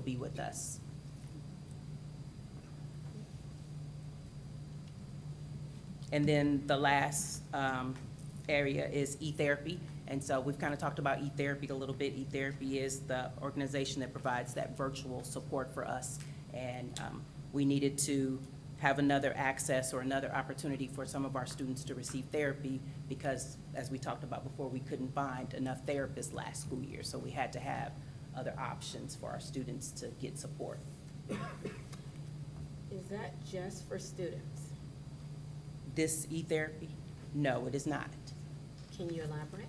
be with us. And then the last um, area is e-therapy. And so we've kind of talked about e-therapy a little bit. E-therapy is the organization that provides that virtual support for us. And um, we needed to have another access or another opportunity for some of our students to receive therapy because, as we talked about before, we couldn't find enough therapists last school year. So we had to have other options for our students to get support. Is that just for students? This e-therapy, no, it is not. Can you elaborate?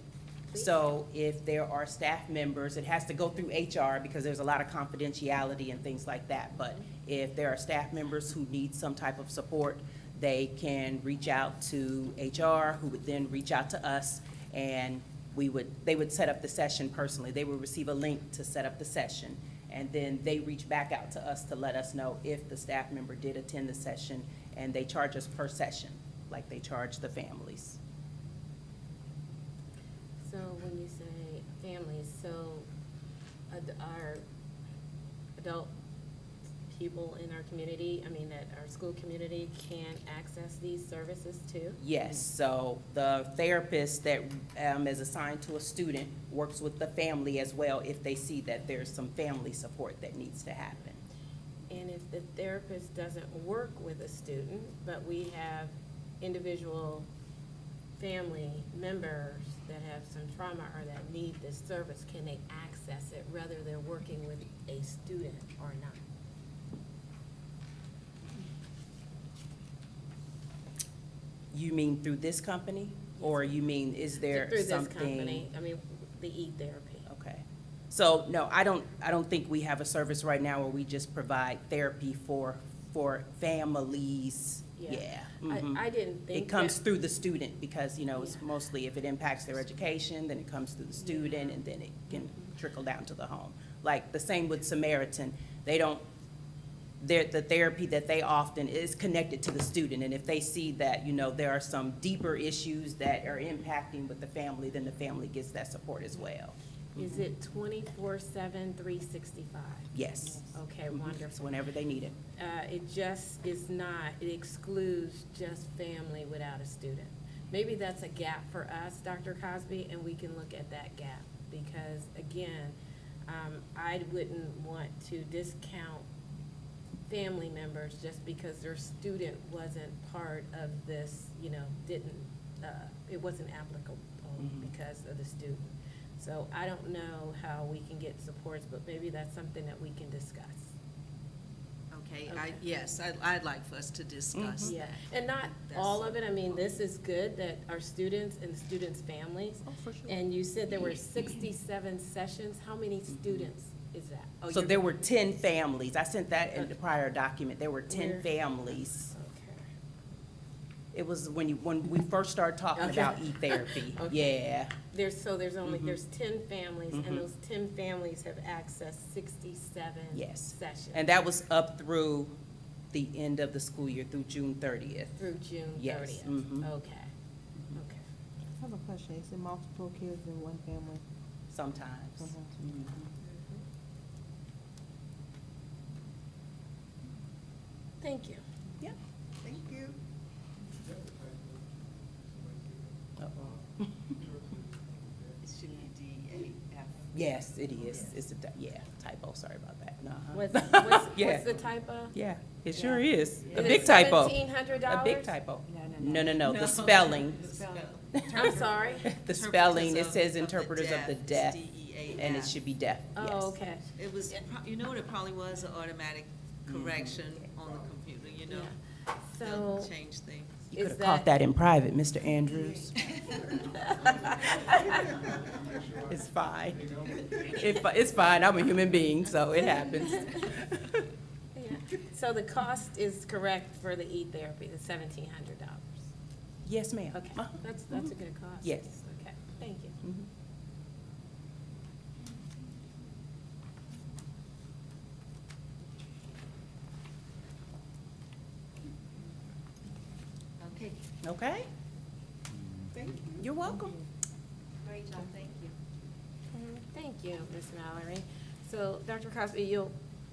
please? So if there are staff members, it has to go through HR because there's a lot of confidentiality and things like that. But if there are staff members who need some type of support, they can reach out to HR, who would then reach out to us, and we would, they would set up the session personally. They would receive a link to set up the session, and then they reach back out to us to let us know if the staff member did attend the session, and they charge us per session, like they charge the families. So when you say families, so ad- our adult people in our community, I mean, that our school community can access these services too? Yes, so the therapist that um, is assigned to a student works with the family as well if they see that there's some family support that needs to happen. And if the therapist doesn't work with a student, but we have individual family members that have some trauma or that need this service, can they access it whether they're working with a student or not? You mean through this company? Or you mean, is there Through this something? company, I mean, the e-therapy. Okay. So, no, I don't, I don't think we have a service right now where we just provide therapy for, for families. Yeah. Yeah. mhm. I, I didn't think. It comes that- through the student because, you know, it's Yeah. mostly if it impacts their education, then it comes through the student and then it can trickle down to the home. Like the same with Samaritan, they don't, their, the therapy that they often is connected to the student. And if they see that, you know, there are some deeper issues that are impacting with the family, then the family gets that support as well. Is it twenty-four seven, three sixty-five? Yes. Okay, Mhm. wonderful. So Whenever they need it. uh, it just is not, it excludes just family without a student. Maybe that's a gap for us, Dr. Cosby, and we can look at that gap, because again, um, I wouldn't want to discount family members just because their student wasn't part of this, you know, didn't, uh, it wasn't applicable Mhm. because of the student. So I don't know how we can get supports, but maybe that's something that we can discuss. Okay, Okay. I, yes, I'd, I'd like for us to Mm-hmm. discuss Yeah, that. and not all of it, I mean, this is good that our students and students' families, and you said there were sixty-seven sessions, how many students is that? Oh, So you're- there were ten families. I sent that in the Okay. prior document. There were ten Where? families. Okay. It was when you, when we first started talking Okay. about e-therapy, Okay. yeah. There's, so there's only, Mhm. there's ten families, Mhm. and those ten families have accessed sixty-seven Yes. sessions. And that was up through the end of the school year, through June thirtieth. Through June Yes, Mm-hmm. thirtieth? mhm. Okay, okay. I have a question. Is it multiple kids in one family? sometimes. Mhm. Mm-hmm. Mhm. Thank you. Yep. Thank you. It should be DAF. Yes, it Oh, is. It's a, ty- yeah, typo, sorry about that. Uh-huh. What's, what's, Yeah. what's the typo? Yeah, it Yeah. sure is. A Is it big typo. Seventeen hundred A dollars? big typo. No, no, no, the spelling, I'm sorry. the spelling, it says interpreters of the deaf, and it should be deaf, yes. Oh, okay. E It was, pro- you know what it probably was, an automatic Mm-hmm. correction on the computer, you know? So, They'll Change things. You could Is have caught that in private, Mr. Andrews. It's fine. It fi- It's fine, I'm a human being, so it happens. yeah. so the cost is correct for the e-therapy, the seventeen hundred dollars? Yes, ma'am. Okay, Uh, that's, that's a good cost. Yes. Okay, thank you. mhm. Okay. Okay? Thank you. You're welcome. Great job, thank you. Thank you, Ms. Mallory. So, Dr. Cosby, you'll